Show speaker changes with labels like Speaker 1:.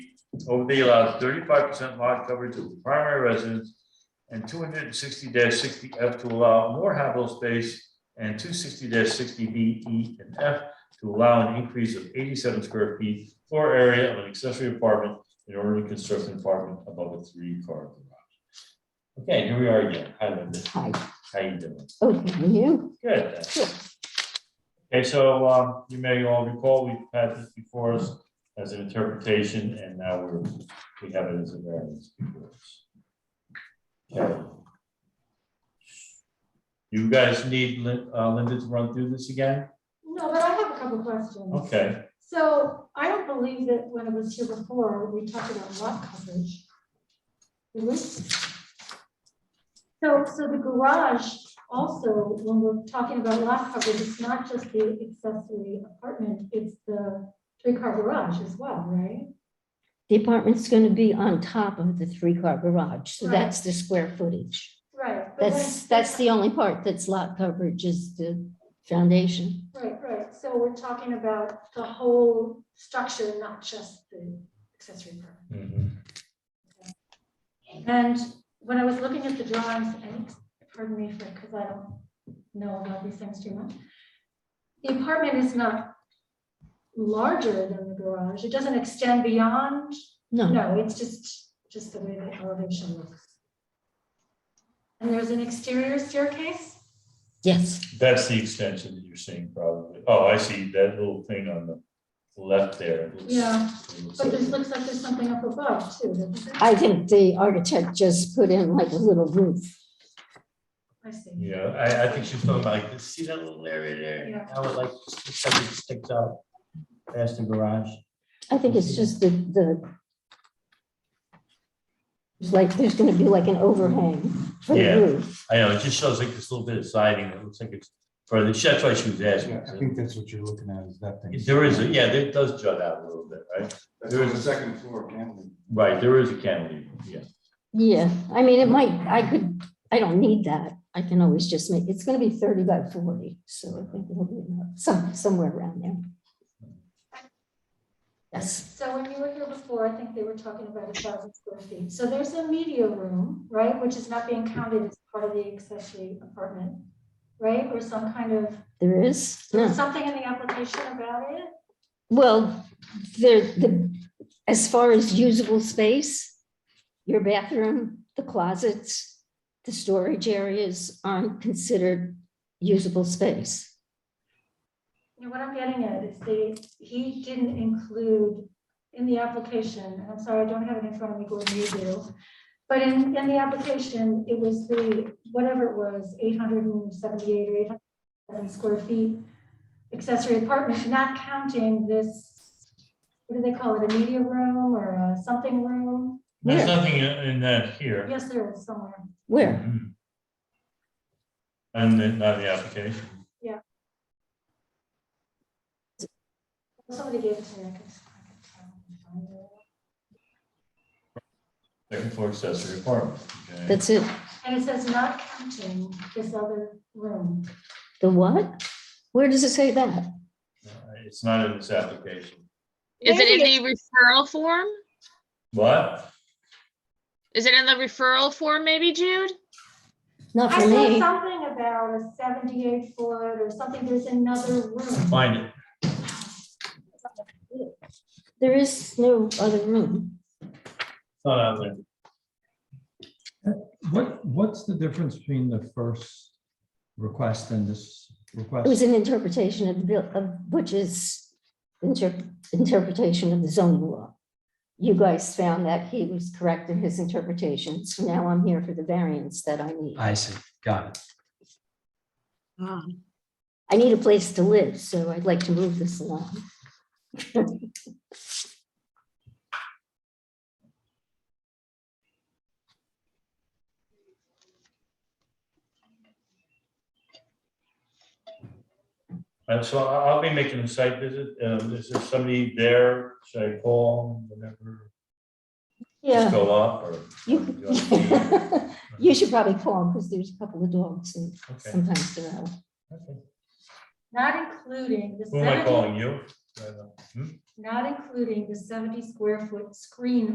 Speaker 1: Overday allows thirty-five percent lot coverage of the primary residence and two hundred and sixty sixty F to allow more habitable space and two sixty sixty B, E, and F to allow an increase of eighty-seven square feet floor area of an accessory apartment in order to construct an apartment above a three-car garage. Okay, here we are again. Hi, Linda.
Speaker 2: Hi,
Speaker 1: How you doing?
Speaker 2: okay, and you?
Speaker 1: Good. Okay, so um, you may all recall, we've had this before us as an interpretation, and now we're, we have it as a variance before us. Okay. You guys need Lin- uh, Linda to run through this again?
Speaker 3: No, but I have a couple questions.
Speaker 1: Okay,
Speaker 3: So I don't believe that when it was here before, we talked about lot coverage. Did we? So, so the garage also, when we're talking about lot coverage, it's not just the accessory apartment, it's the three-car garage as well, right?
Speaker 2: The apartment's gonna be on top of the three-car garage, so
Speaker 3: Right.
Speaker 2: that's the square footage.
Speaker 3: Right. but when-
Speaker 2: That's, that's the only part that's lot coverage is the foundation.
Speaker 3: Right, right. So we're talking about the whole structure, not just the accessory apartment.
Speaker 1: mhm,
Speaker 3: And when I was looking at the drawings, and pardon me for, because I don't know about these things too much. The apartment is not larger than the garage. It doesn't extend beyond,
Speaker 2: No,
Speaker 3: no, it's just, just the way the elevation looks. And there's an exterior staircase?
Speaker 2: yes,
Speaker 1: that's the extension that you're seeing probably. Oh, I see that little thing on the left there. It looks-
Speaker 3: Yeah,
Speaker 1: it looks
Speaker 3: But
Speaker 1: like-
Speaker 3: this looks like there's something up above too. doesn't it?
Speaker 2: I think the architect just put in like a little roof.
Speaker 3: I see.
Speaker 1: Yeah, I, I think she's talking about, like, see that little area there?
Speaker 3: Yeah.
Speaker 1: How it like, looks like it sticks out past the garage.
Speaker 2: I think it's just the, the it's like, there's gonna be like an overhang for
Speaker 1: Yeah.
Speaker 2: the roof.
Speaker 1: I know, it just shows like this little bit of siding, it looks like it's, for the, that's why she was
Speaker 4: Yeah,
Speaker 1: asking.
Speaker 4: I think that's what you're looking at is that thing.
Speaker 1: There is, a yeah, it does jut out a little bit, right?
Speaker 4: That's on the second floor, apparently.
Speaker 1: Right, there is a cantilever, yeah.
Speaker 2: Yeah, I mean, it might, I could, I don't need that. I can always just make, it's gonna be thirty by forty, so I think it'll be enough, some, somewhere around there. Yes,
Speaker 3: So when you were here before, I think they were talking about a thousand square feet. So there's a media room, right, which is not being counted as part of the accessory apartment, right? Or some kind of,
Speaker 2: there is,
Speaker 3: there
Speaker 2: no,
Speaker 3: was something in the application about it?
Speaker 2: well, there, the, as far as usable space, your bathroom, the closets, the storage areas aren't considered usable space.
Speaker 3: You know, what I'm getting at is they, he didn't include in the application, I'm sorry, I don't have it in front of me, Gordon, you do. But in, in the application, it was the, whatever it was, eight hundred and seventy-eight or eight hundred and seven square feet accessory apartment, not counting this, what do they call it, a media room or a something room?
Speaker 1: There's
Speaker 2: Where?
Speaker 1: nothing in in that here.
Speaker 3: Yes, there is somewhere.
Speaker 2: Where?
Speaker 1: Mhm. And then, not the application.
Speaker 3: Somebody gave it to me. I could- I could find it.
Speaker 1: Second floor accessory apartment. okay.
Speaker 2: That's it.
Speaker 3: And it says not counting this other room.
Speaker 2: The what? Where does it say that?
Speaker 1: It's not in this application.
Speaker 5: Is it in
Speaker 2: Maybe
Speaker 5: the referral form?
Speaker 1: What?
Speaker 5: Is it in the referral form, maybe, Jude?
Speaker 2: Not
Speaker 3: I
Speaker 2: for
Speaker 3: saw
Speaker 2: me.
Speaker 3: something about a seventy-eight foot or something, there's another room.
Speaker 1: Find it.
Speaker 2: There is no other room.
Speaker 1: It's not out there.
Speaker 4: What, what's the difference between the first request and this
Speaker 2: It was
Speaker 4: request?
Speaker 2: an interpretation of the bill, of which is inter- interpretation of the zoning law. You guys found that he was correct in his interpretation, so now I'm here for the variance that I need.
Speaker 4: I see, got
Speaker 2: I need a place to live, so I'd like to move this along.
Speaker 1: And so I- I'll be making a site visit. Um, Is there somebody there? Should I call whenever?
Speaker 2: Yeah.
Speaker 1: Go up or?
Speaker 2: You you should probably call because there's a couple of dogs and
Speaker 1: Okay.
Speaker 2: sometimes they're out.
Speaker 1: Okay.
Speaker 3: Not including the
Speaker 1: Who am I
Speaker 3: seventy,
Speaker 1: calling you? I don't know. Hmm?
Speaker 3: not including the seventy square foot screen